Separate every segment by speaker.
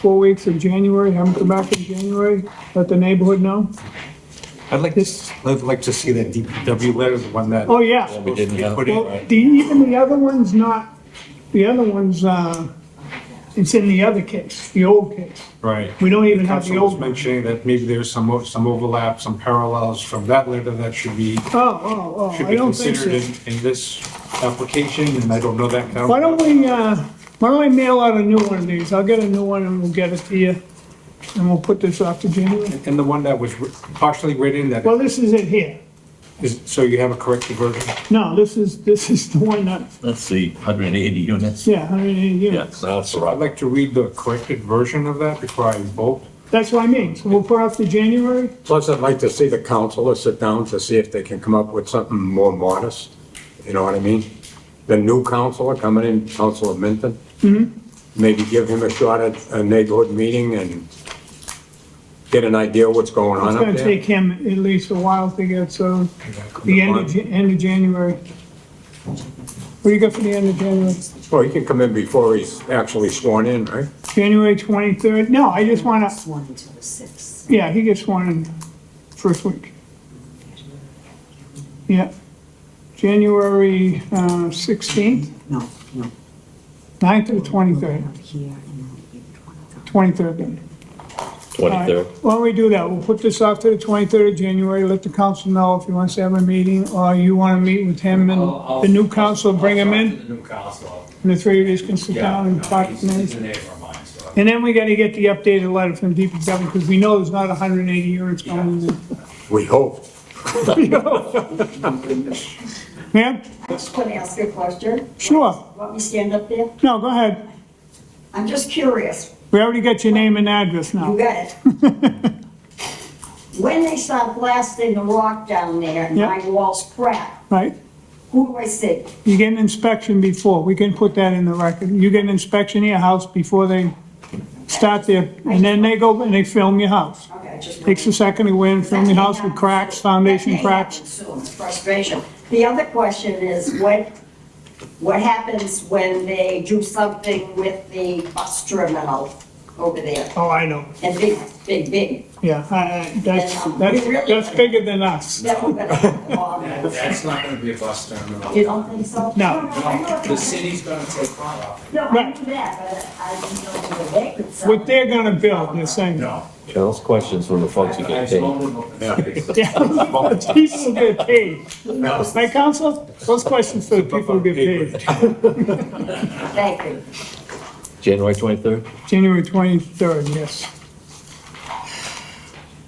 Speaker 1: four weeks of January, have them come back in January, let the neighborhood know.
Speaker 2: I'd like to, s- I'd like to see that DPW letter, the one that.
Speaker 1: Oh, yeah.
Speaker 3: We didn't have-
Speaker 2: Put in,
Speaker 1: Well,
Speaker 2: right?
Speaker 1: the, even the other one's not, the other one's, uh, it's in the other case, the old case.
Speaker 2: Right.
Speaker 1: We don't even have the
Speaker 2: Council was
Speaker 1: old oh, one.
Speaker 2: mentioning that maybe there's some, o- some overlap, some parallels from that letter that should be,
Speaker 1: Oh, oh, oh,
Speaker 2: should
Speaker 1: I
Speaker 2: be
Speaker 1: don't think
Speaker 2: considered
Speaker 1: so.
Speaker 2: in, in this application, and I don't know that. count.
Speaker 1: Why don't we, uh, why don't I mail out a new one of these? I'll get a new one and we'll get it to you. And we'll put this off to January.
Speaker 2: And the one that was wri- partially written, that
Speaker 1: Well, this is it here.
Speaker 2: is, so you have a corrected version?
Speaker 1: No, this is, this is the one that,
Speaker 3: That's the 180 units.
Speaker 1: yeah, I mean, you know,
Speaker 3: Yes, that's
Speaker 2: I'd
Speaker 3: right.
Speaker 2: like to read the corrected version of that before I vote.
Speaker 1: that's what I mean. So we'll put off to January?
Speaker 4: Plus, I'd like to see the council sit down to see if they can come up with something more modest, you know what I mean? The new councilor coming in, Councilor Minton.
Speaker 1: Mm-hmm.
Speaker 4: Maybe give him a shot at a neighborhood meeting and get an idea what's going
Speaker 1: It's
Speaker 4: on
Speaker 1: gonna
Speaker 4: up
Speaker 1: take
Speaker 4: there.
Speaker 1: him at least a while to get, so the end of, Ja- end of January. What do you got for the end of January?
Speaker 4: Well, he can come in before he's actually sworn in, right?
Speaker 1: January 23rd? No, I just wanna,
Speaker 5: Sworn until the sixth.
Speaker 1: yeah, he gets one in first week. Yeah. January uh, 16th,
Speaker 5: No, no.
Speaker 1: 9th to the 23rd,
Speaker 5: Up here and then it'll be the twenty-third.
Speaker 1: 23rd then. All right.
Speaker 3: 23rd.
Speaker 1: Why don't we do that? We'll put this off to the 23rd of January, let the council know if he wants to have a meeting, or you want to meet with him and
Speaker 6: I'll- I'll-
Speaker 1: Um, the new council, bring him
Speaker 6: I'll talk
Speaker 1: in,
Speaker 6: to The new council.
Speaker 1: and the three of you can sit
Speaker 6: Yeah,
Speaker 1: down
Speaker 6: no,
Speaker 1: and talk.
Speaker 6: he's,
Speaker 1: to him.
Speaker 6: he's a neighbor of mine, so.
Speaker 1: And then we got to get the updated letter from DPW, because we know there's not 180 units going in. there.
Speaker 4: We hope.
Speaker 1: Ma'am?
Speaker 7: Can I ask you a question?
Speaker 1: Sure.
Speaker 7: Want me to stand up there?
Speaker 1: No, go ahead.
Speaker 7: I'm just curious.
Speaker 1: We already got your name and address
Speaker 7: You
Speaker 1: now.
Speaker 7: got it. When they start blasting the rock down there and
Speaker 1: Yeah.
Speaker 7: my walls crack,
Speaker 1: Right?
Speaker 7: who do I see?
Speaker 1: You get an inspection before, we can put that in the record. You get an inspection of your house before they start there, and then they go and they film your house.
Speaker 7: Okay, I just.
Speaker 1: Takes a second to go in, film your house with cracks, foundation cracks.
Speaker 7: It's frustration. The other question is what, what happens when they do something with the bus terminal over there?
Speaker 1: Oh, I know.
Speaker 7: And big, big, big.
Speaker 1: Yeah, I- I- that's, that's, that's bigger than us.
Speaker 7: That we're gonna have to bother.
Speaker 6: That- That's not gonna be a bus terminal.
Speaker 7: You don't think so?
Speaker 1: No.
Speaker 7: I know.
Speaker 6: The city's gonna take part of
Speaker 7: No, I
Speaker 1: Right.
Speaker 7: knew that, but I didn't know you were there. so-
Speaker 1: What they're gonna build, they're saying.
Speaker 3: Those questions when the folks
Speaker 6: it.
Speaker 3: who
Speaker 6: I
Speaker 3: get paid.
Speaker 6: told him open space.
Speaker 1: The People get paid. Right, council? Those questions for the people who get paid.
Speaker 7: Thank you.
Speaker 3: January 23rd.
Speaker 1: January 23rd, yes.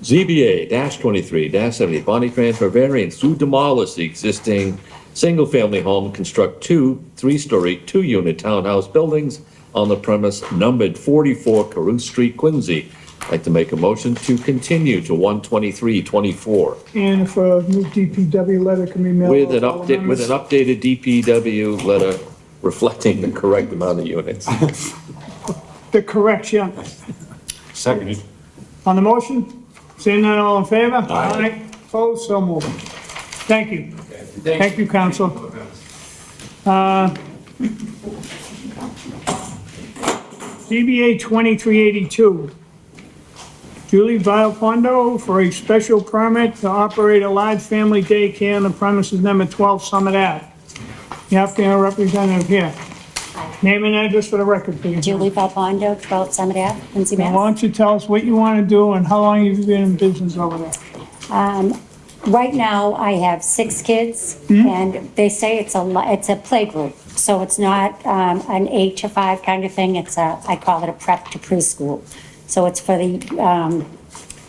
Speaker 3: ZBA dash 23 dash 70, Bonnie transfer variance to demolish the existing single-family home, construct two three-story, two-unit townhouse buildings on the premise numbered 44 Carew Street, Quincy. I'd Like to make a motion to continue to 12324
Speaker 1: And if a new DPW letter can be mailed.
Speaker 3: with an
Speaker 1: all
Speaker 3: update, with an
Speaker 1: amendments.
Speaker 3: updated DPW letter reflecting the correct amount of units.
Speaker 1: The correction.
Speaker 2: Seconded.
Speaker 1: On the motion, seeing none, all in favor? Aye. Opposed, so moved. Thank you. Thank you, council. ZBA 2382. Julie Vilfondo for a special permit to operate a large family daycare on the premises number 12 Summit Ave. You have to have a representative here. Name and address for the record, please.
Speaker 8: Julie Valpondo, 12 Summit Ave, Quincy,
Speaker 1: Now, why
Speaker 8: Mass.
Speaker 1: don't you tell us what you want to do and how long you've been in business over there?
Speaker 8: Right now, I have six kids,
Speaker 1: Mm-hmm.
Speaker 8: and they say it's a, li- it's a playgroup, so it's not um, an eight to five kind of thing, it's a, I call it a prep to preschool. So it's for the um,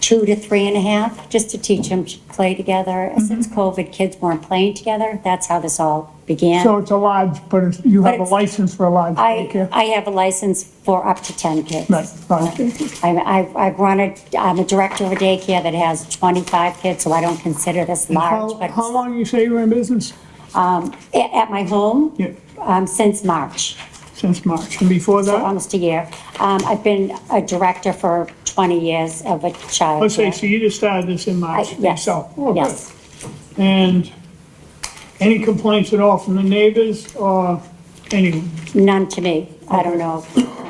Speaker 8: two to three and a half, just to teach them to play together.
Speaker 1: Mm-hmm.
Speaker 8: Since COVID, kids weren't playing together, that's how this all began.
Speaker 1: So it's a lodge, but it's- you have a
Speaker 8: it's-
Speaker 1: license for a lodge
Speaker 8: I,
Speaker 1: daycare?
Speaker 8: I have a license for up to 10 kids.
Speaker 1: Right, right.
Speaker 8: I'm- I've, I've run a, I'm a director of a daycare that has 25 kids, so I don't consider this large,
Speaker 1: How,
Speaker 8: but
Speaker 1: how long you say you were in business?
Speaker 8: a- at my home,
Speaker 1: Yeah,
Speaker 8: um, since March,
Speaker 1: since March, and before
Speaker 8: so
Speaker 1: that?
Speaker 8: almost a year. Um, I've been a director for 20 years of a child.
Speaker 1: Oh, so so you just started this in March
Speaker 8: Yes,
Speaker 1: yourself? Oh, good.
Speaker 8: yes.
Speaker 1: And any complaints at all from the neighbors or anyone?
Speaker 8: None to me. I don't know